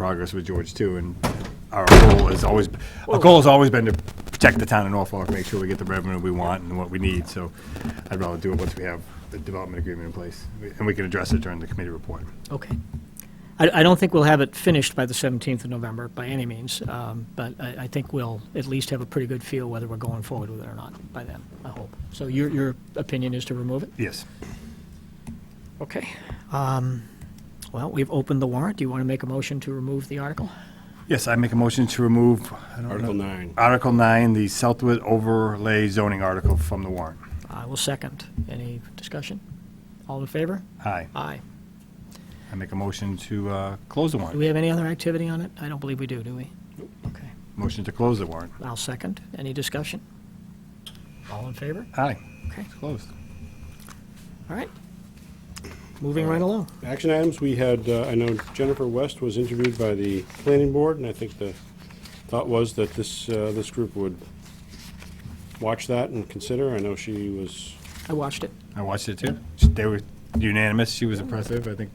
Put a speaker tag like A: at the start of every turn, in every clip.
A: progress with George too, and our goal has always, our goal has always been to protect the town of Norfolk, make sure we get the revenue we want and what we need, so I'd rather do it once we have the development agreement in place, and we can address it during the committee report.
B: Okay. I, I don't think we'll have it finished by the 17th of November, by any means, um, but I, I think we'll at least have a pretty good feel whether we're going forward with it or not by then, I hope. So your, your opinion is to remove it?
A: Yes.
B: Okay. Um, Well, we've opened the warrant. Do you want to make a motion to remove the article?
A: Yes, I make a motion to remove, I don't
C: Article
A: know,
C: nine.
A: Article nine, the Southwood overlay zoning article from the warrant.
B: I will second. Any discussion? All in favor?
A: Aye.
B: Aye.
A: I make a motion to, uh, close the
B: Do we
A: warrant.
B: have any other activity on it? I don't believe we do, do we? Okay.
A: Motion to close the warrant.
B: I'll second. Any discussion? All in favor?
A: Aye.
B: Okay.
A: It's closed.
B: All right. Moving right along.
C: Action items, we had, uh, I know Jennifer West was interviewed by the planning board, and I think the thought was that this, uh, this group would watch that and consider. I know she was,
B: I watched it.
A: I watched it too. They were unanimous. She was impressive, I think.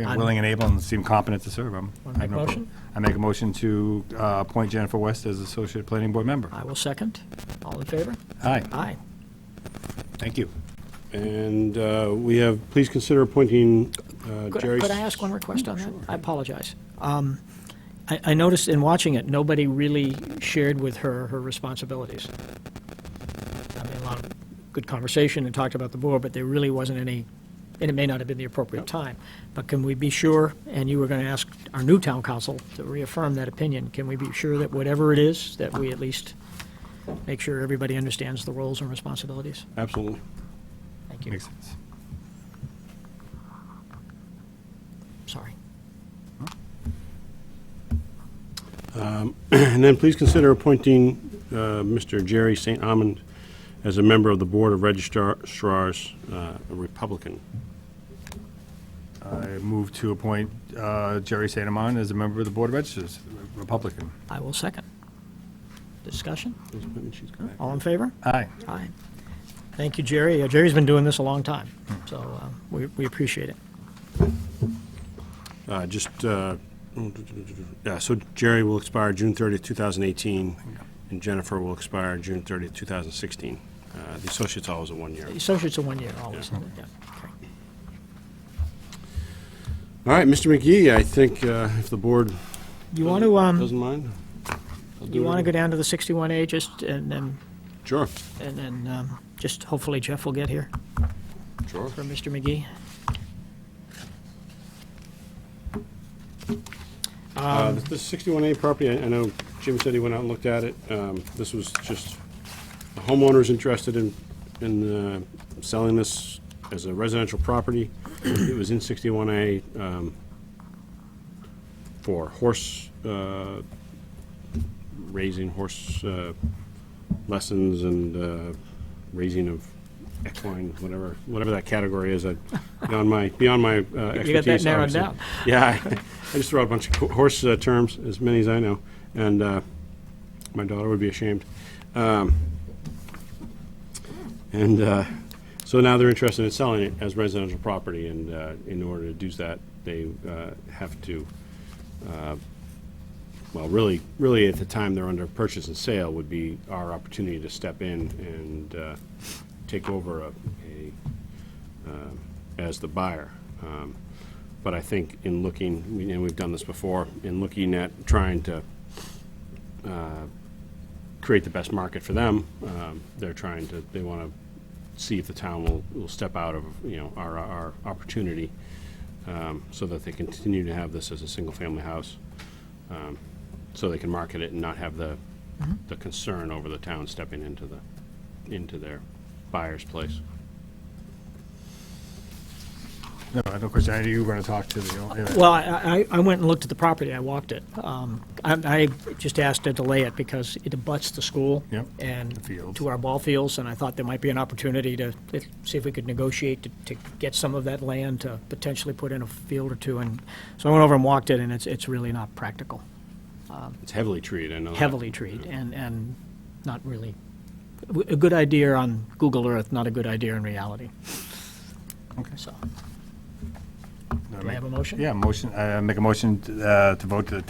A: yeah,
B: I'm-
A: Willing and able and seemed competent to serve. I'm-
B: Wanna
A: I have
B: make
A: no
B: motion?
A: prob- I make a motion to uh, appoint Jennifer West as Associate Planning Board Member.
B: I will second. All in favor?
A: Aye,
B: Aye.
A: thank you.
C: and uh, we have, please consider appointing uh,
B: Could
C: Jerry.
B: could I ask one request on that? I apologize. Um, I I noticed in watching it, nobody really shared with her her responsibilities. I mean, a lot of good conversation and talked about the board, but there really wasn't any, and it may not have been the appropriate time. But can we be sure, and you were going to ask our new town council to reaffirm that opinion, can we be sure that whatever it is, that we at least make sure everybody understands the roles and responsibilities?
C: Absolutely.
B: Thank you.
A: Makes sense.
B: Sorry.
C: And then please consider appointing uh, Mr. Jerry St. Amand as a member of the Board of Registrars, uh, a Republican.
A: I move to appoint uh, Jerry Santamon as a member of the Board of Registers, Republican.
B: I will second. Discussion?
C: She's correct.
B: All in favor?
A: Aye.
B: Aye. Thank you, Jerry. Uh, Jerry's been doing this a long time, so uh, we we appreciate it.
C: Uh, Just, uh, yeah, so Jerry will expire June 30th, 2018, and Jennifer will expire June 30th, 2016. Uh, The associate's always a one-year.
B: The Associates are one year always.
C: Yeah.
B: Yeah, okay.
C: All right, Mr. McGee, I think uh, if the board
B: You want to, um,
C: doesn't mind. I'll do
B: you
C: it
B: want to go
C: again.
B: down to the 61A just, and then,
C: Sure,
B: and then, um, just hopefully Jeff will get here
C: sure.
B: for Mr. McGee.
C: Uh, The 61A property, I I know Jim said he went out and looked at it. Um, This was just, the homeowner's interested in, in uh, selling this as a residential property. It was in 61A um, for horse uh, raising, horse uh, lessons and uh, raising of equine, whatever, whatever that category is, I- beyond my, beyond my uh, expertise.
B: You got that narrowed
C: obviously.
B: down.
C: Yeah, I, I just throw out a bunch of ho- horse uh, terms, as many as I know, and uh, my daughter would be ashamed. Um, and uh, so now they're interested in selling it as residential property, and uh, in order to do that, they uh, have to. uh, Well, really, really, at the time they're under purchase and sale would be our opportunity to step in and uh, take over a, a, um, as the buyer. Um, But I think in looking, and we've done this before, in looking at trying to uh, create the best market for them, um, they're trying to, they want to see if the town will, will step out of, you know, our, our opportunity um, so that they continue to have this as a single-family house um, so they can market it and not have the, the concern over the town stepping into the, into their buyer's place.
A: No, I have no question. I knew you were going to talk to Oh, the,
B: Well, I, I I went and looked at the property, I walked it. Um, I, I just asked to delay it because it abuts the school.
A: Yep, the
B: And
A: fields.
B: to our ball fields, and I thought there might be an opportunity to to see if we could negotiate to, to get some of that land to potentially put in a field or two. And so I went over and walked it, and it's, it's really not practical.
C: It's heavily treated, I know. that.
B: Heavily treed and, and not really, a good idea on Google Earth, not a good idea in reality.
A: Okay.
B: So,
A: I
B: Do I have a motion?
A: Yeah, motion, uh, make a motion uh, to vote to